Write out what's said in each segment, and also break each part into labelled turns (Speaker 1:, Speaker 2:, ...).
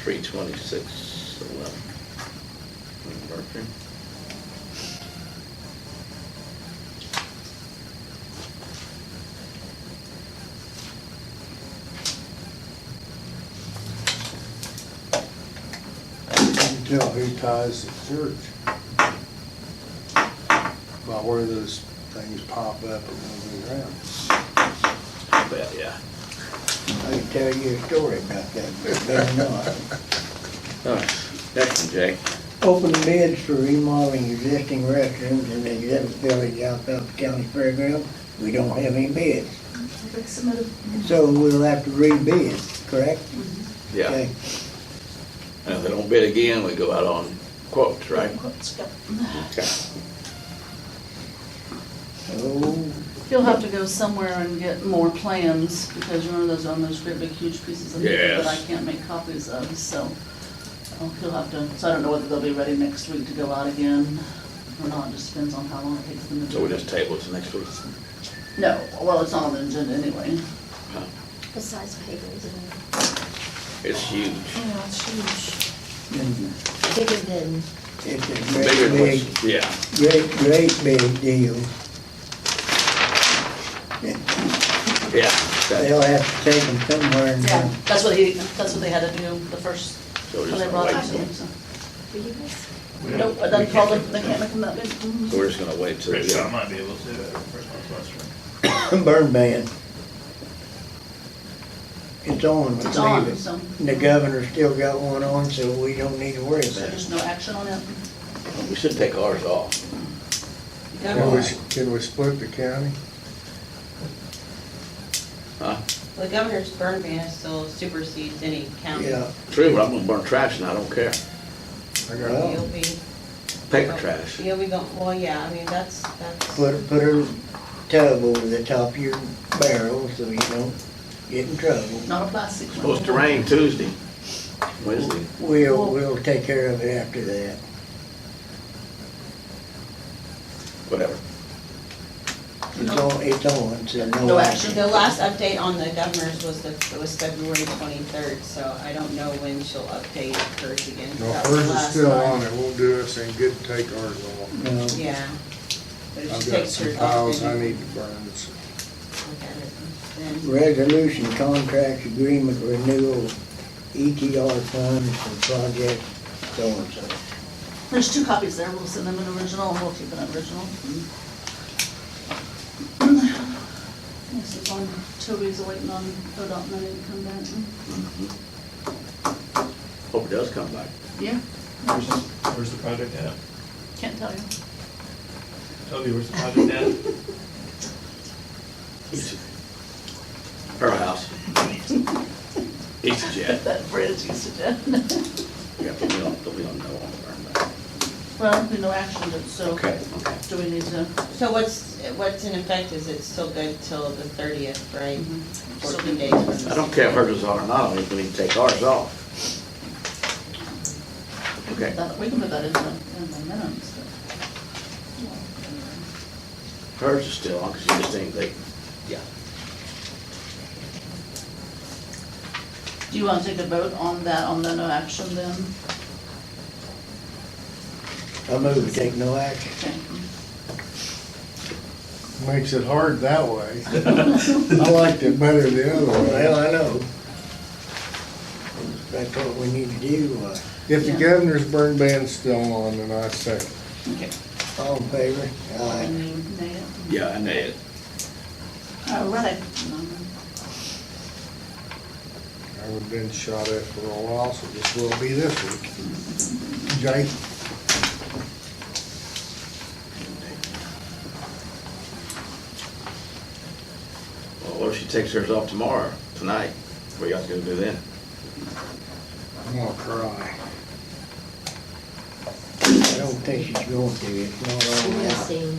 Speaker 1: three twenty-six eleven. Mercury.
Speaker 2: You can tell who ties the church by where those things pop up and move around.
Speaker 1: I bet, yeah.
Speaker 3: I can tell you a story about that, but better not.
Speaker 1: All right, next one, Jay.
Speaker 3: Open bids for remodeling existing restrooms in the exhibit building out of the county fairground. We don't have any bids,
Speaker 4: Like some of the-
Speaker 3: so we'll have to rebid, correct?
Speaker 1: Yeah,
Speaker 3: Okay.
Speaker 1: and if they don't bid again, we go out on quotes, right?
Speaker 4: Quotes, yep.
Speaker 1: Okay.
Speaker 3: Oh,
Speaker 5: You'll have to go somewhere and get more plans, because remember those are on those great big huge pieces of paper that I
Speaker 1: Yes.
Speaker 5: can't make copies of, so. oh, You'll have to, so I don't know whether they'll be ready next week to go out again or not, just depends on how long it takes them to.
Speaker 1: So we just table it to next week.
Speaker 5: No, well, it's not on the agenda anyway.
Speaker 6: Besides papers and
Speaker 1: It's huge.
Speaker 4: Yeah, it's huge.
Speaker 3: and
Speaker 6: bigger than
Speaker 3: it's a
Speaker 1: Bigger
Speaker 3: great
Speaker 1: than
Speaker 3: big,
Speaker 1: what's, yeah,
Speaker 3: great, great big deal.
Speaker 1: yeah. that-
Speaker 3: They'll have to take them somewhere and,
Speaker 5: Yeah,
Speaker 3: uh,
Speaker 5: that's what he, that's what they had to do the first,
Speaker 1: So we're
Speaker 5: when
Speaker 1: just
Speaker 5: they
Speaker 1: gonna
Speaker 5: brought
Speaker 1: wait,
Speaker 5: it in,
Speaker 1: till-
Speaker 5: so.
Speaker 6: beavers.
Speaker 5: Nope, I done called them, they can't make them that big. Mhm.
Speaker 1: so we're just gonna wait till,
Speaker 7: Rich, I
Speaker 1: yeah,
Speaker 7: might be able to, first my question.
Speaker 3: burn ban. It's on,
Speaker 5: It's
Speaker 3: let's leave
Speaker 5: on,
Speaker 3: it.
Speaker 5: so.
Speaker 3: And The governor's still got one on, so we don't need to worry
Speaker 5: So
Speaker 3: about it.
Speaker 5: there's no action on it.
Speaker 1: we should take ours off.
Speaker 3: Well,
Speaker 2: Can we, can we split the county?
Speaker 1: Huh?
Speaker 8: The governor's burn ban still supersedes any county.
Speaker 3: Yeah,
Speaker 1: True, but I'm gonna burn trash and I don't care.
Speaker 2: I
Speaker 3: Well,
Speaker 2: got,
Speaker 8: You'll be.
Speaker 1: Paper trash.
Speaker 8: You'll be going, well, yeah, I mean, that's, that's,
Speaker 3: put, put a tub over the top of your barrel so you don't get in trouble.
Speaker 5: Not a plastic one.
Speaker 1: Supposed to rain Tuesday, Wednesday.
Speaker 3: We'll, we'll take care of it after that.
Speaker 1: whatever.
Speaker 3: It's on, it's on, so
Speaker 5: No
Speaker 3: no
Speaker 5: action.
Speaker 3: action.
Speaker 8: the last update on the governor's was the, was February twenty-third, so I don't know when she'll update hers again.
Speaker 2: no,
Speaker 8: That was
Speaker 2: hers is
Speaker 8: last
Speaker 2: still
Speaker 8: time.
Speaker 2: on, it won't do us any good to take ours off.
Speaker 3: No,
Speaker 8: Yeah. But if
Speaker 2: I've
Speaker 8: she
Speaker 2: got
Speaker 8: takes
Speaker 2: some
Speaker 8: hers off,
Speaker 2: piles
Speaker 8: then
Speaker 2: I
Speaker 8: you
Speaker 2: need to burn, so
Speaker 8: can look at it then.
Speaker 3: resolution, contract agreement, renewal, ETR funds for project so-and-so.
Speaker 5: There's two copies there, we'll send them an original, and we'll keep an original. This is on Toby's waiting on ODOT money to come back.
Speaker 1: Mm-hmm. Hope it does come back.
Speaker 5: Yeah,
Speaker 7: Where's, where's the project at?
Speaker 5: can't tell you.
Speaker 7: Toby, where's the project at?
Speaker 1: Her house. East jet.
Speaker 5: That bridge you suggested.
Speaker 1: Yeah, but we don't, we don't know all of our,
Speaker 5: Well, we no action, but so
Speaker 1: okay, okay.
Speaker 5: do we need to?
Speaker 8: So what's, what's in effect is it's still good till the thirtieth, right?
Speaker 5: So
Speaker 8: Fourteen
Speaker 5: we-
Speaker 8: days. from this.
Speaker 1: I don't care if hers is on or not, I think we need to take ours off. Okay,
Speaker 5: that- We can put that in the, in the minutes. but-
Speaker 1: hers is still on, because you just think they, yeah.
Speaker 5: Do you want to take a vote on that, on the no action then?
Speaker 3: I move to take no action.
Speaker 5: Okay.
Speaker 2: makes it hard that way. I liked it better the other way.
Speaker 3: Well, I know. That's what we need to do, uh,
Speaker 2: If the
Speaker 5: Yeah.
Speaker 2: governor's burn ban's still on, then I second.
Speaker 5: Okay.
Speaker 3: all in favor? Aye.
Speaker 5: And you, Nate?
Speaker 1: Yeah, uh, I know it.
Speaker 5: All Oh, right.
Speaker 2: I would've been shot at for a while, so this will be this week. Jay?
Speaker 1: Well, what if she takes hers off tomorrow, tonight? What y'all gonna do then?
Speaker 2: I'm gonna cry.
Speaker 3: I don't think she's going to, it's not all out.
Speaker 6: Missing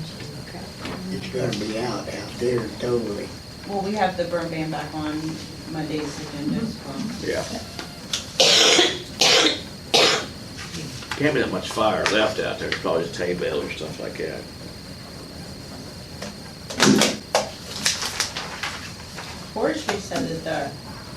Speaker 6: crap.
Speaker 3: It's gonna be out, out there totally.
Speaker 8: Well, we have the burn ban back on Monday's agenda as well.
Speaker 1: Yeah. Can't be that much fire left out there, It's probably just hay bales or stuff like that.
Speaker 8: Forestry said that the